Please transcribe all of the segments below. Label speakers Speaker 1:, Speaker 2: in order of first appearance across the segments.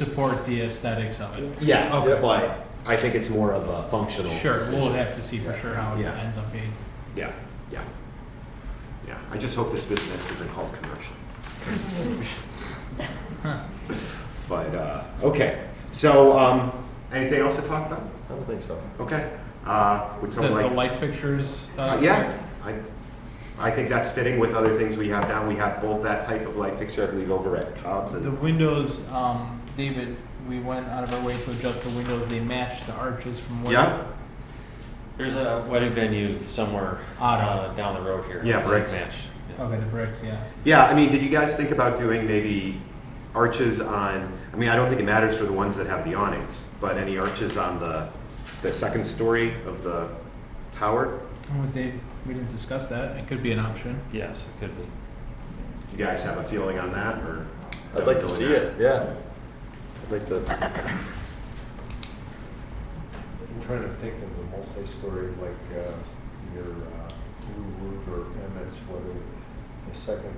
Speaker 1: support the aesthetics of it.
Speaker 2: Yeah,
Speaker 1: Okay.
Speaker 2: but I think it's more of a functional.
Speaker 1: Sure, we'll
Speaker 2: decision.
Speaker 1: have to see for sure how it
Speaker 2: Yeah.
Speaker 1: ends up being.
Speaker 2: Yeah, yeah, yeah. I just hope this business isn't called commercial.
Speaker 1: Huh.
Speaker 2: But uh, okay, so um, anything else to talk about?
Speaker 3: I don't think so.
Speaker 2: Okay, uh, would
Speaker 1: The, the
Speaker 2: someone like?
Speaker 1: light fixtures.
Speaker 2: Uh, yeah, I, I think that's fitting with other things we have down. We have both that type of light fixture, I believe, over at Cobb's
Speaker 1: The
Speaker 2: and
Speaker 1: windows, um, David, we went out of our way to adjust the windows. They match the arches from what?
Speaker 2: yeah,
Speaker 4: There's a wedding venue somewhere
Speaker 1: Otto.
Speaker 4: uh, down the road here.
Speaker 2: Yeah,
Speaker 4: Like
Speaker 2: Briggs.
Speaker 4: Match. Yeah.
Speaker 1: Okay, the bricks, yeah.
Speaker 2: yeah. I mean, did you guys think about doing maybe arches on? I mean, I don't think it matters for the ones that have the awnings, but any arches on the the second story of the tower?
Speaker 1: Oh, they, we didn't discuss that. It could be an option.
Speaker 4: Yes, it could be.
Speaker 2: You guys have a feeling on that, or?
Speaker 3: I'd like to see it, yeah. I'd like to,
Speaker 5: I'm trying to think of the multi-story, like uh, your uh, Blue Root or Emmett's, whether the second,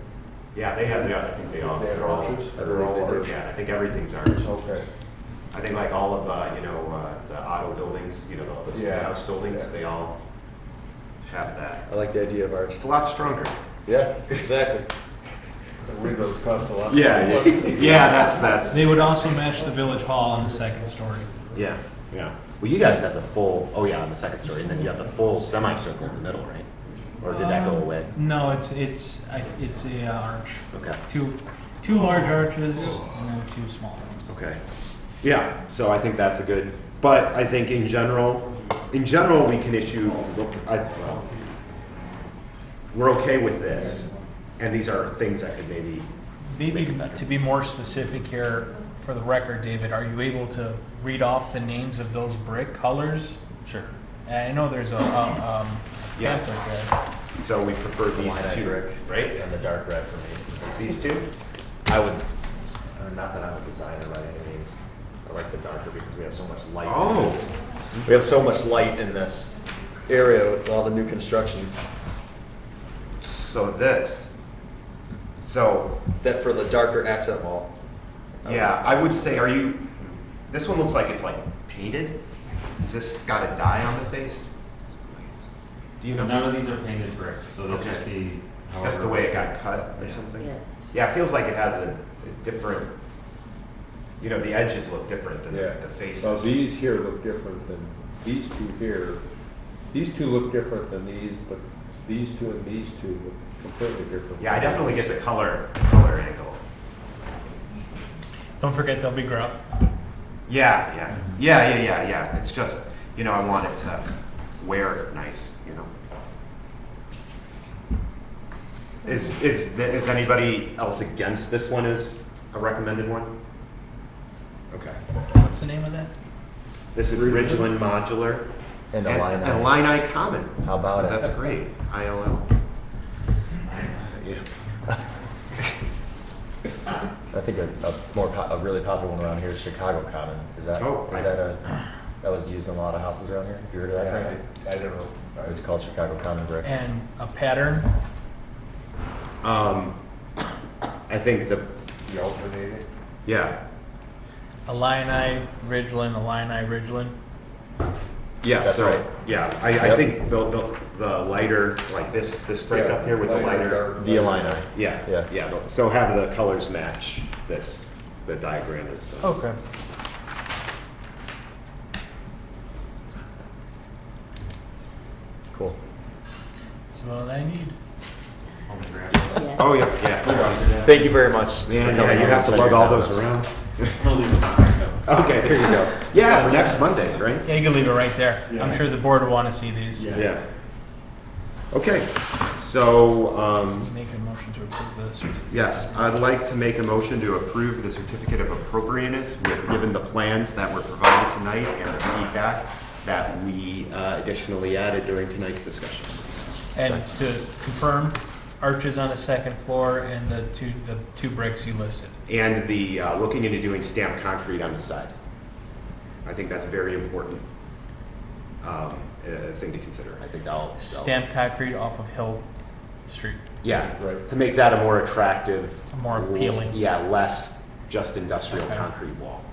Speaker 2: Yeah, they have. Yeah, I think they all.
Speaker 5: They have
Speaker 2: they're all-
Speaker 5: arches?
Speaker 2: They're all
Speaker 3: They do. Oh.
Speaker 2: arch. Yeah, I think everything's arch.
Speaker 5: okay.
Speaker 2: I think like all of uh, you know uh, the auto buildings, you know, all those
Speaker 5: Yeah.
Speaker 2: house buildings,
Speaker 5: Yeah.
Speaker 2: they all have that.
Speaker 3: I like the idea of arch.
Speaker 2: It's a lot stronger.
Speaker 3: Yeah, exactly.
Speaker 5: The windows cost a lot.
Speaker 2: yeah. That's that's.
Speaker 1: They would also match the village hall on the second story.
Speaker 2: Yeah, yeah.
Speaker 4: Well, you guys have the full. Oh yeah, on the second story, and then you have the full semicircle in the middle, right? Or did that go
Speaker 1: Um,
Speaker 4: away?
Speaker 1: No, it's, it's, I- it's a uh, arch.
Speaker 4: Okay.
Speaker 1: Two, two large arches and then two small ones.
Speaker 2: Okay. Yeah. So I think that's a good. But I think in general, in general, we can issue. Look, I, well, we're okay with this, and these are things that could maybe.
Speaker 1: Maybe
Speaker 4: Make it better.
Speaker 1: to be more specific here, for the record, David, are you able to read off the names of those brick colors?
Speaker 4: Sure.
Speaker 1: And I know there's a, um, um,
Speaker 2: Yes.
Speaker 1: pamphlet there.
Speaker 2: So we prefer these
Speaker 3: Lilac
Speaker 2: two,
Speaker 3: brick.
Speaker 2: right?
Speaker 3: And the dark red for me.
Speaker 2: These two.
Speaker 3: I would, uh, not that I'm a designer by any means. I like the darker because we have so much light. in
Speaker 2: Oh.
Speaker 3: this. We have so much light in this area with all the new construction
Speaker 2: So this. So
Speaker 3: that for the darker accent wall.
Speaker 2: yeah, I would say, are you? This one looks like it's like painted. Is this got a dye on the face? Do you know?
Speaker 4: None of these are painted bricks, so they'll
Speaker 2: Okay.
Speaker 4: just be.
Speaker 2: Just the
Speaker 4: however
Speaker 2: way it
Speaker 4: it's
Speaker 2: got cut or
Speaker 4: Yeah.
Speaker 2: something.
Speaker 6: Yeah.
Speaker 2: Yeah, it feels like it has a, a different. You know, the edges look different than
Speaker 5: Yeah.
Speaker 2: the, the faces.
Speaker 5: Well, these here look different than, these two here, these two look different than these, but these two and these two look completely different.
Speaker 2: yeah, I definitely get the color color angle.
Speaker 1: Don't forget they'll be grout.
Speaker 2: Yeah, yeah, yeah, yeah, yeah, yeah. It's just you know I want it to wear nice. You know. Is is th- is anybody else against this one as a recommended one? Okay.
Speaker 1: What's the name of that?
Speaker 2: This is Ridgeland Modular.
Speaker 3: And a
Speaker 2: and,
Speaker 3: line
Speaker 2: and
Speaker 3: item.
Speaker 2: Illini Common.
Speaker 3: How about it?
Speaker 2: That's great. ILL.
Speaker 3: I think a, a more, po- a really popular one around here is Chicago Common. Is that,
Speaker 2: Oh, I-
Speaker 3: is that a, that was used in a lot of houses around here? Have you heard of that?
Speaker 5: Yeah,
Speaker 3: Frank?
Speaker 5: I I don't know.
Speaker 3: It was called Chicago Common Brick.
Speaker 1: And a pattern?
Speaker 2: Um, I think the
Speaker 5: You alternate it?
Speaker 2: yeah
Speaker 1: Illini, Ridgeland, Illini, Ridgeland.
Speaker 2: yeah
Speaker 3: That's
Speaker 2: so
Speaker 3: right.
Speaker 2: yeah I, I
Speaker 3: Yep.
Speaker 2: think the, the the lighter like this this break up here with the lighter
Speaker 3: Oh, The Illini.
Speaker 2: Yeah,
Speaker 3: Yeah.
Speaker 2: yeah. but- So have the colors match this, the diagram is done.
Speaker 1: Okay.
Speaker 3: Cool.
Speaker 1: That's what I need.
Speaker 4: On the ground.
Speaker 6: Yeah.
Speaker 2: Oh, yeah, yeah.
Speaker 3: Thank you very much.
Speaker 2: Man, yeah, you have to lug all those around.
Speaker 4: I'm gonna leave it on.
Speaker 2: Okay, there you go. Yeah, for next Monday, right?
Speaker 1: Yeah, you can leave it right there. I'm sure the board will want to see these.
Speaker 2: Yeah. Okay, so, um,
Speaker 1: Make a motion to approve the certificate.
Speaker 2: yes, I'd like to make a motion to approve the certificate of appropriateness with, given the plans that were provided tonight and the feedback that we uh, additionally added during tonight's discussion.
Speaker 1: And to confirm, arches on the second floor and the two, the two bricks you listed.
Speaker 2: And the, uh, looking into doing stamped concrete on the side. I think that's a very important um, uh, thing to consider.
Speaker 3: I think that'll. that'll-
Speaker 1: Stamped concrete off of Hill Street.
Speaker 2: Yeah,
Speaker 5: Right.
Speaker 2: to make that a more attractive.
Speaker 1: More appealing.
Speaker 2: Yeah, less just industrial
Speaker 1: Okay.
Speaker 2: concrete wall.